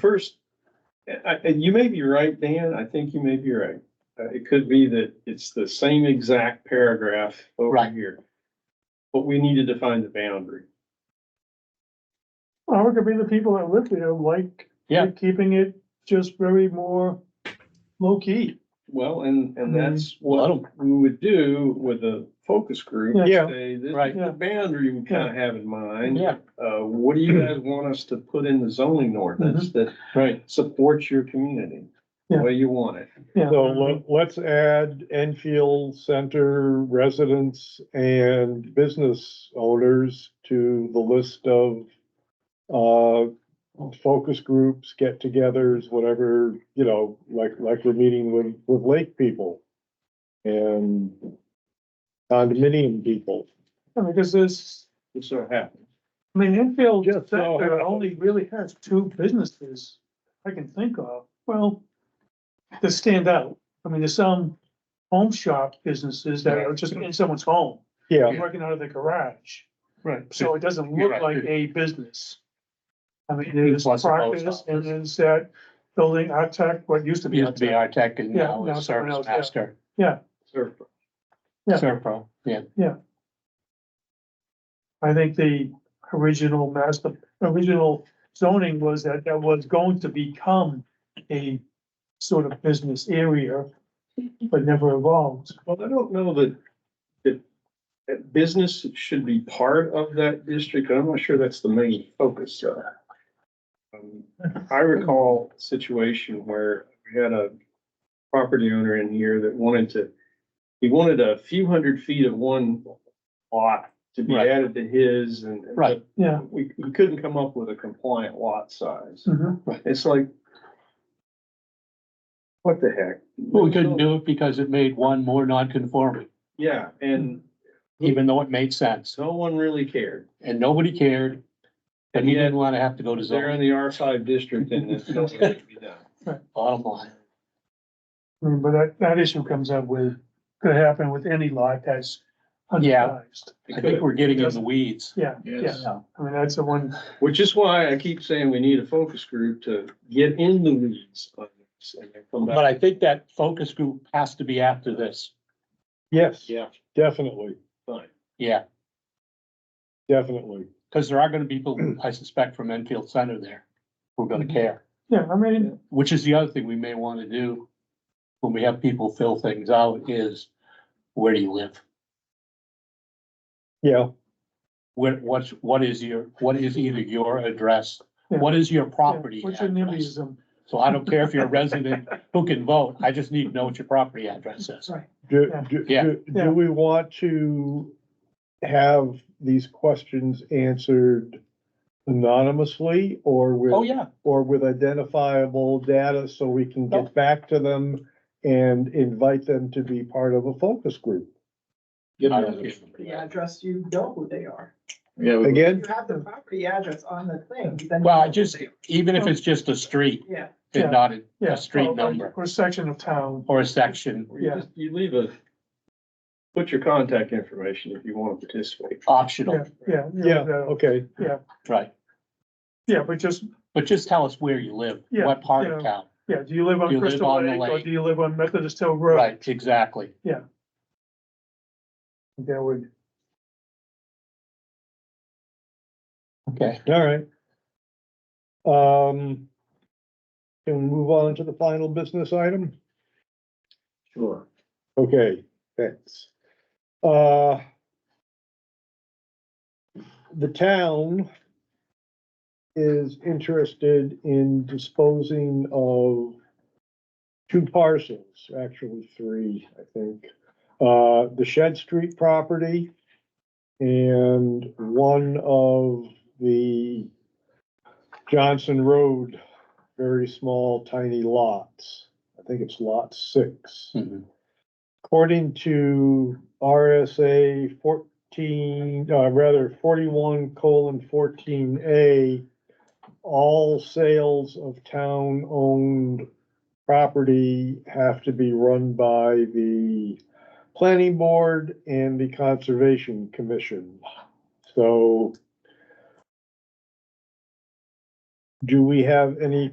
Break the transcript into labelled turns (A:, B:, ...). A: first, I- and you may be right, Dan, I think you may be right. Uh, it could be that it's the same exact paragraph over
B: Right.
A: here. But we need to define the boundary.
C: Well, it could be the people that live there like
B: Yeah.
C: keeping it just very more low key.
A: Well, and, and
C: Mhm.
A: that's
B: I
A: what
B: don't-
A: we would do with a focus group.
C: Yeah.
B: Yeah.
A: Say, this
B: Right. Mm-hmm.
A: is the boundary we kind of have in mind.
B: Yeah,
A: Uh, what do you guys want us to put in the zoning ordinance that
B: right.
A: supports your community? The
C: Mm-hmm. Yeah.
A: way you want it.
C: Yeah.
D: So le- let's add Enfield Center residents and business owners to the list of uh, focus groups, get-togethers, whatever, you know, like, like we're meeting with, with lake people and condominium people.
C: I mean, because there's,
A: It so happens.
C: I mean, Enfield
D: Just so
C: sector
D: happened.
C: only really has two businesses I can think of, well, that stand out. I mean, there's some home shop businesses that are just in someone's home,
D: Yeah,
C: working out of their garage.
A: Right.
C: So it doesn't
A: You're
C: look
A: right.
C: like a business. I mean, there's
B: Plus a post
C: practice and
B: office.
C: there's that building, our tech, what used to be.
B: Used to be
C: Artec.
B: our tech and
C: Yeah,
B: now
C: now
B: is
C: it's someone
B: Service
C: else, yeah.
B: Master,
A: Sure.
C: Yeah.
B: Serpro, yeah.
C: I think the original master, original zoning was that that was going to become a sort of business area, but never evolved.
A: Well, I don't know that, that, that business should be part of that district. I'm not sure that's the main focus. uh. Um, I recall a situation where we had a property owner in here that wanted to, he wanted a few hundred feet of one lot to be
B: Right.
A: added to his and. and
B: Right.
C: Yeah.
A: We, we couldn't come up with a compliant lot size.
B: Hmm.
C: Mhm.
A: It's like, what the heck?
B: Well, we couldn't do it because it made one more non-conforming,
A: Yeah, and
B: even though it made sense
A: no one really cared.
B: and nobody cared. And he didn't want to have to go to
A: They're in
B: zoning,
A: the R five district and it's not going to be done.
B: bottom line.
C: I mean, But that, that issue comes up with, could happen with any lot that's
B: Yeah.
C: undersized.
B: I think we're getting in the weeds.
C: Yeah, yeah. I mean, that's the one,
A: Which is why I keep saying we need a focus group to get in the weeds on this and then come
B: But
A: back.
B: I think that focus group has to be after this,
D: yes,
A: Yeah,
D: definitely,
A: fine.
B: yeah,
D: definitely.
B: because there are gonna be people, I suspect, from Enfield Center there who are gonna care.
C: yeah, I mean,
B: Which is the other thing we may want to do when we have people fill things out is, where do you live?
D: Yeah,
B: Where, what's, what is your, what is either your address?
C: Yeah.
B: What is your
C: yeah,
B: property
C: what's your
B: address?
C: NIMBYism?
B: So I don't care if you're a resident who can vote, I just need to know what your property address is.
C: Right.
D: Do,
C: Yeah.
D: do,
B: Yeah.
D: do-
C: Yeah.
D: do we want to have these questions answered anonymously or
B: Oh,
D: with,
B: yeah,
D: or with identifiable data so we can
B: No.
D: get back to them and invite them to be part of a focus group?
A: Get
B: I
A: in
B: don't
A: there.
E: property address, you know who they are. If
D: Again,
E: you have the property address on the thing, then. you
B: Well, I
E: know
B: just-
E: who they
B: even if it's just a street
E: are. Yeah,
C: Yeah.
B: and not a-
C: Yeah, Oh,
B: a street
C: or-
B: number Oh,
C: Or section of town,
B: or a section
A: Or you
C: Yeah.
A: just- You leave a, put your contact information if you want to participate.
C: yeah,
B: optional,
C: yeah.
D: yeah,
C: yeah.
D: okay,
B: right?
C: Yeah, but just,
B: But just tell us where you live,
C: Yeah,
B: what part of
C: yeah.
B: town,
C: yeah, do you live
B: Do
C: on
B: you live
C: Crystal
B: on the
C: Lake or
B: lake?
C: do you live on Methodist Hill Road?
B: right, exactly.
C: That would.
B: Okay.
D: all right. Um, can we move on to the final business item?
A: Sure.
D: Okay, thanks. Uh. The town. Is interested in disposing of. Two parcels, actually three, I think, uh, the Shed Street property. And one of the Johnson Road, very small tiny lots. I think it's lot six.
B: Mhm.
D: According to RSA fourteen, uh, rather forty-one colon fourteen A, all sales of town-owned property have to be run by the planning board and the conservation commission. So do we have any